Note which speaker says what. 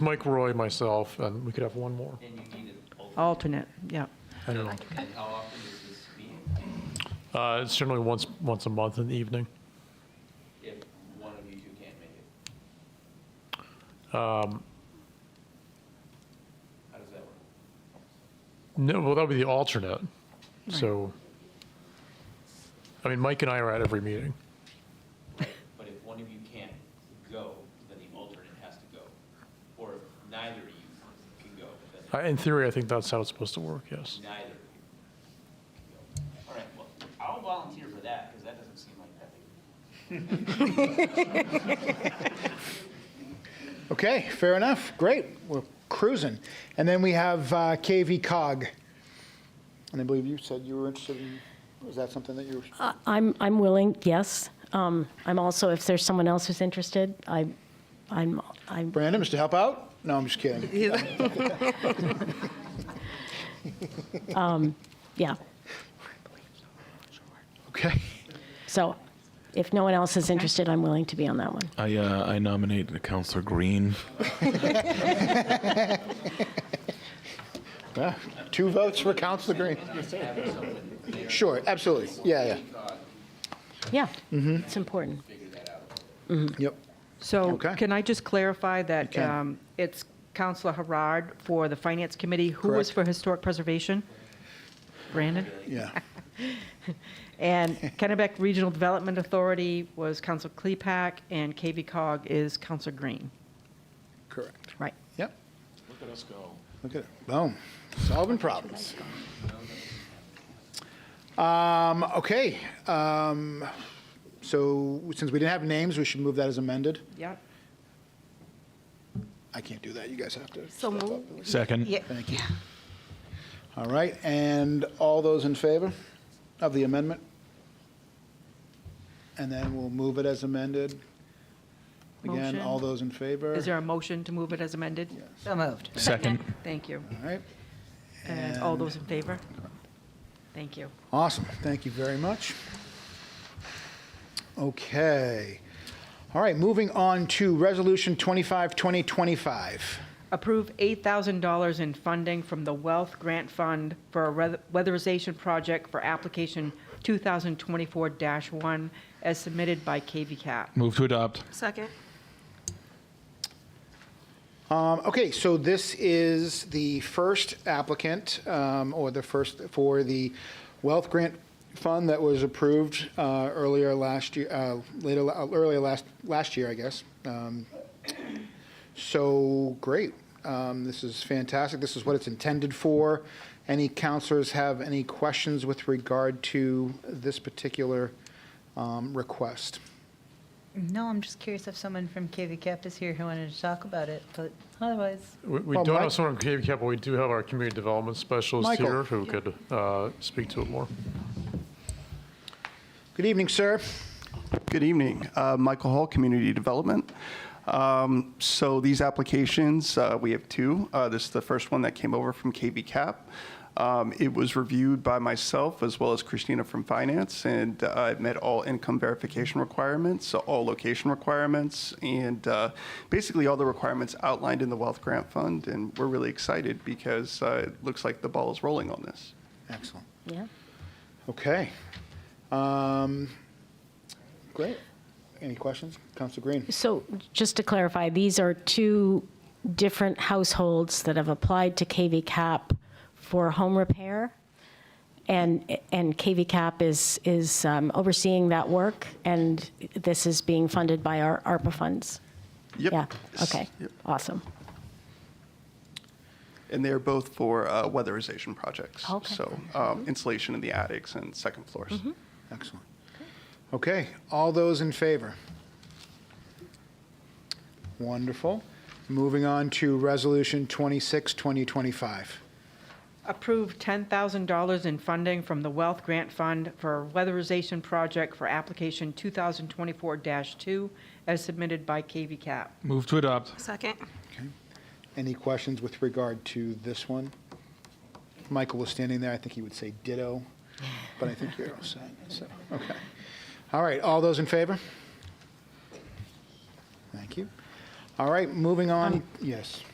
Speaker 1: Mike Roy, myself, and we could have one more.
Speaker 2: And you need an alternate.
Speaker 3: alternate, yeah.
Speaker 1: I don't know.
Speaker 2: And how often is this meeting?
Speaker 1: Uh, It's generally once, once a month in the evening.
Speaker 2: If one of you two can't make it? How does that work?
Speaker 1: No, well, that would be the alternate. So, I mean, Mike and I are at every meeting.
Speaker 2: But if one of you can't go, then the alternate has to go. Or if neither of you can go, then
Speaker 1: I- In theory, I think that's how it's supposed to work, yes.
Speaker 2: neither of you can go. All right, well, I'll volunteer for that, because that doesn't seem like that big.
Speaker 4: Okay, fair enough. Great. We're cruising. And then we have uh, KV Cog. And I believe you said you were interested in, was that something that you were?
Speaker 5: I- I'm, I'm willing, yes. Um, I'm also, if there's someone else who's interested, I, I'm, I'm,
Speaker 4: Brandon, Mr. Help Out? No, I'm just kidding.
Speaker 5: yeah.
Speaker 4: Okay.
Speaker 5: So if no one else is interested, I'm willing to be on that one.
Speaker 6: I uh, I nominate Councillor Green.
Speaker 4: Yeah, Two votes for Councilor Green. Sure, absolutely. Yeah,
Speaker 5: Yeah,
Speaker 7: Mm-hmm.
Speaker 5: it's important.
Speaker 4: yeah. Yep.
Speaker 3: So
Speaker 4: Okay.
Speaker 3: can I just clarify that
Speaker 4: can.
Speaker 3: um, it's Counselor Harard for the Finance Committee? Who was
Speaker 4: Correct.
Speaker 3: for Historic Preservation? Brandon?
Speaker 4: Yeah.
Speaker 3: And Kennebec Regional Development Authority was Counselor Klepak, and KV Cog is Counselor Green.
Speaker 4: Correct.
Speaker 3: Right.
Speaker 4: Yep. Look at us go. Look at it. Boom. Solving problems. Um, okay. Um, so since we didn't have names, we should move that as amended.
Speaker 3: Yep.
Speaker 4: I can't do that. You guys have to.
Speaker 8: So moved.
Speaker 6: Second.
Speaker 4: Thank you. All right, and all those in favor of the amendment? And then we'll move it as amended. Again,
Speaker 3: Motion.
Speaker 4: all those in favor?
Speaker 3: Is there a motion to move it as amended? So moved.
Speaker 6: Second.
Speaker 3: Thank you.
Speaker 4: All right,
Speaker 3: And all
Speaker 4: And-
Speaker 3: those in favor? Thank you.
Speaker 4: awesome. Thank you very much. Okay. All right, moving on to Resolution 25, 2025.
Speaker 3: Approve $8,000 in funding from the Wealth Grant Fund for a weath- weatherization project for application 2024-1 as submitted by KVCAP.
Speaker 6: Move to adopt.
Speaker 8: Second.
Speaker 4: Um, Okay, so this is the first applicant, um, or the first for the wealth grant fund that was approved uh, earlier last year, uh, later, uh, earlier last, last year, I guess. Um, So, great. Um, This is fantastic. This is what it's intended for. Any counselors have any questions with regard to this particular um, request?
Speaker 9: No, I'm just curious if someone from KV Cap is here who wanted to talk about it, but otherwise,
Speaker 1: We- We
Speaker 4: Well,
Speaker 1: don't
Speaker 4: Mike-
Speaker 1: have someone from KV Cap, but we do have our community development specialist
Speaker 4: Michael.
Speaker 1: here who could uh, speak to it more.
Speaker 4: Good evening, sir.
Speaker 7: Good evening. Uh, Michael Hall, Community Development. Um, So these applications, uh, we have two. Uh, This is the first one that came over from KB Cap. Um, It was reviewed by myself as well as Christina from Finance, and uh, it met all income verification requirements, so all location requirements, and uh, basically all the requirements outlined in the Wealth Grant Fund. And we're really excited because uh, it looks like the ball is rolling on this.
Speaker 4: Excellent.
Speaker 5: Yeah.
Speaker 4: Okay. Um, Great. Any questions? Council Green?
Speaker 5: So just to clarify, these are two different households that have applied to KV Cap for home repair? And, and KV Cap is, is um, overseeing that work, and this is being funded by our ARPA funds?
Speaker 7: Yep.
Speaker 5: Yeah, okay,
Speaker 7: Yep.
Speaker 5: awesome.
Speaker 7: And they're both for uh, weatherization projects.
Speaker 5: Okay.
Speaker 7: So um, insulation in the attics and second floors.
Speaker 4: Excellent. Okay, all those in favor? Wonderful. Moving on to Resolution 26, 2025.
Speaker 3: Approve $10,000 in funding from the Wealth Grant Fund for a weatherization project for application 2024-2 as submitted by KVCAP.
Speaker 6: Move to adopt.
Speaker 8: Second.
Speaker 4: Any questions with regard to this one? If Michael was standing there, I think he would say ditto, but I think you're all set, so, okay. All right, all those in favor? Thank you. All right, moving on, yes.